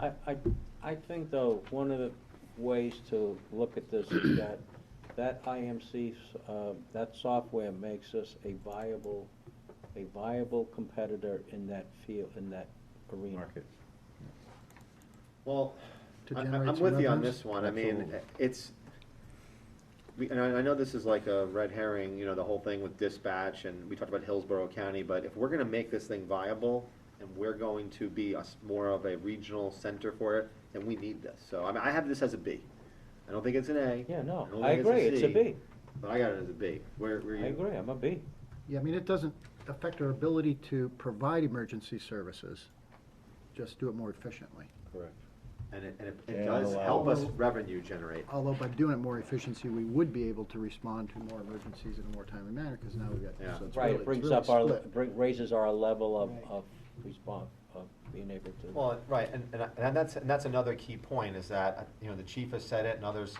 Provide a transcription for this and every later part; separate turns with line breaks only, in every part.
I, I, I think though, one of the ways to look at this is that, that IMC, 's, uh, that software makes us a viable, a viable competitor in that field, in that arena.
market.
Well,
To
I- I-
generate
I'm
some
with you on
revenues?
this one, I mean,
Absolutely.
it's, we, and I, I know this is like a red herring, you know, the whole thing with dispatch, and we talked about Hillsborough County, but if we're gonna make this thing viable, and we're going to be us, more of a regional center for it, then we need this, so, I mean, I have this as a B. I don't think it's an A.
Yeah,
I
no,
don't
I
think
agree, it's a
C,
B.
But I got it as a B, where, where
I
you?
agree, I'm a B.
Yeah, I mean, it doesn't affect our ability to provide emergency services, just do it more efficiently.
Correct.
And it, and it-
And
it does
allow-
help us revenue generate.
Although by doing it more efficiency, we would be able to respond to more emergencies in a more timely manner, because now we've got,
Yeah.
so it's really,
Right,
it's
it brings
really
up our,
split.
bring- raises our level of,
Right.
of response, of being able to.
Well, right, and, and, I- and that's, and that's another key point, is that, you know, the chief has said it and others,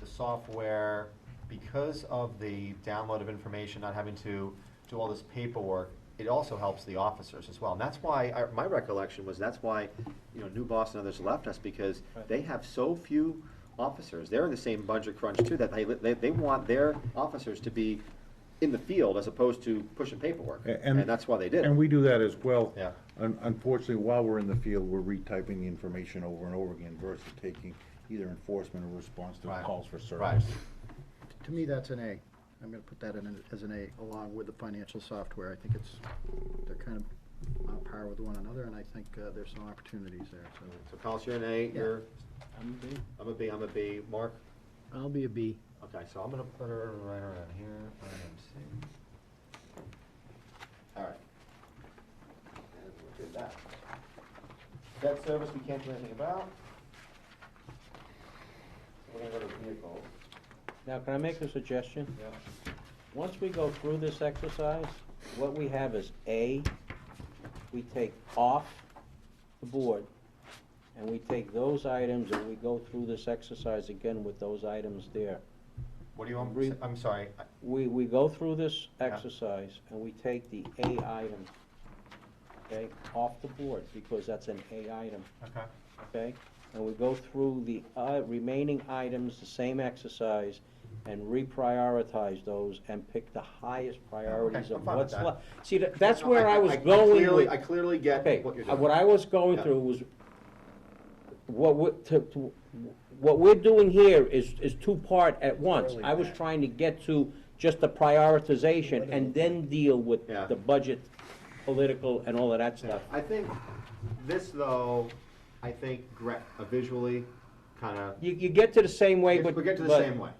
the software, because of the download of information, not having to do all this paperwork, it also helps the officers as well. And that's why, I- my recollection was, that's why, you know, New Boston and others left us, because
Right.
they have so few officers. They're in the same budget crunch too, that they, they, they want their officers to be in the field as opposed to pushing paperwork.
A-
And that's why they did it.
And we do that as well.
Yeah.
Un- Unfortunately, while we're in the field, we're retyping the information over and over again versus taking either enforcement or response to
Right.
calls for
Right.
service.
To me, that's an A. I'm gonna put that in an- as an A, along with the financial software. I think it's, they're kind of on par with one another, and I think uh, there's some opportunities there, so.
So Collis, you're an A, you're,
I'm a B.
I'm a B, I'm a B. Mark?
I'll be a B.
Okay, so I'm gonna put her right around here, IMC. Alright. And we'll do that. Debt service, we can't do anything about. So We're gonna go to vehicles.
Now, can I make a suggestion?
Yeah.
Once we go through this exercise, what we have is A, we take off the board, and we take those items, and we go through this exercise again with those items there.
What do you want,
Re-
I'm sorry, I-
We, we go through this
Yeah.
exercise, and we take the A item, okay, off the board, because that's an A item,
okay,
okay? And we go through the uh, remaining items, the same exercise, and reprioritize those and pick the highest priorities
Okay, I'm
of
fine with
what's
that.
left. See, tha- that's
No,
where
I-
I was
I- I
going
clearly-
with.
I clearly get
Okay,
what you're
uh,
doing.
What I was going
Yeah.
through was, what we, to, to, what we're doing here is, is two-part at once. I was trying to get to just the prioritization and then deal with
Yeah.
the budget, political, and all of that stuff.
I think this though, I think gra- uh, visually, kinda
You, you get to the same way, but.
We get to the
but-
same way,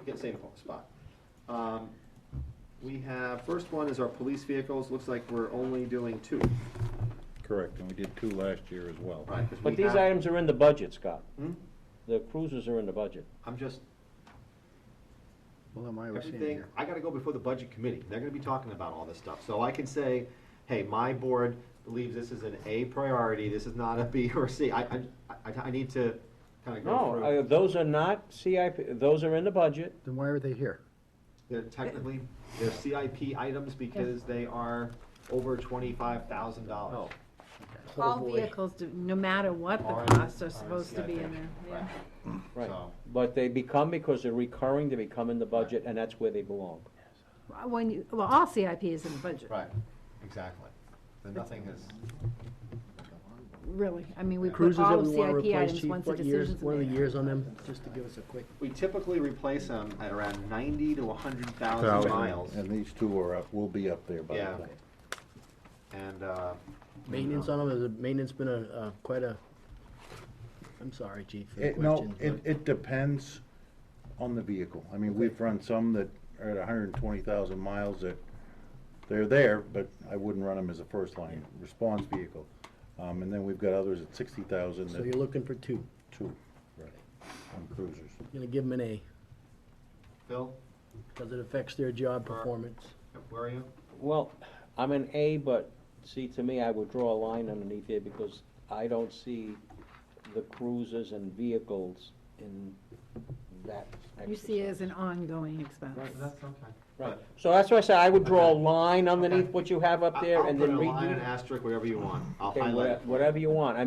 We get the same spot. Um, We have, first one is our police vehicles, looks like we're only doing two,
Correct, and we did two last year as well.
right? 'cause
But
we
these
have-
items are in the budget, Scott.
Hmm?
The cruisers are in the budget.
I'm just,
Well, am I overseeing
everything,
here?
I gotta go before the budget committee, they're gonna be talking about all this stuff, so I can say, hey, my board believes this is an A priority, this is not a B or a C, I, I, I, I need to kinda go
No,
through.
uh, those are not CIP, those are in the budget.
Then why are they here?
They're technically, they're CIP items because they are over twenty-five thousand dollars.
All
boy.
vehicles, do- no matter what
Are in-
Oh. the costs,
are
are
in
supposed to be in there,
CIP.
yeah.
Right.
Right.
So-
But they become, because they're recurring, they become in the budget, and that's where they belong.
Well, When you, well, all CIP is in the budget,
Right, exactly. Then nothing is,
really, I mean, we put
Cruisers
all
that
of
we want to
CIP
replace,
items
chief,
once the
what years,
decision's
what are the
made.
years on them, just to give us a quick?
we typically replace them at around ninety to hundred thousand
Thousand,
miles.
And these two are up, will be up there by
Yeah.
the way.
And, uh,
Maintenance on them, has the maintenance been a, uh, quite a, I'm sorry, chief, for the
It, no,
question.
it,
but-
it depends on the vehicle. I mean, we've run some that are at hundred and twenty thousand miles that, they're there, but I wouldn't run them as a first line response vehicle. Um, and then we've got others at sixty thousand
So you're
that,
looking for two,
two, right, on cruisers.
gonna give them an A,
Phil,
because it affects their job performance.
where are you?
Well, I'm an A, but see, to me, I would draw a line underneath there because I don't see the cruisers and vehicles in that
You see it
exercise.
as an ongoing expense.
okay.
Right, so that's why I said I would draw a line underneath
Okay.
what you have up there and then
I'll put a line, an
redo.
asterisk, whatever you want. I'll
Okay,
highlight.
wha- Whatever you want, I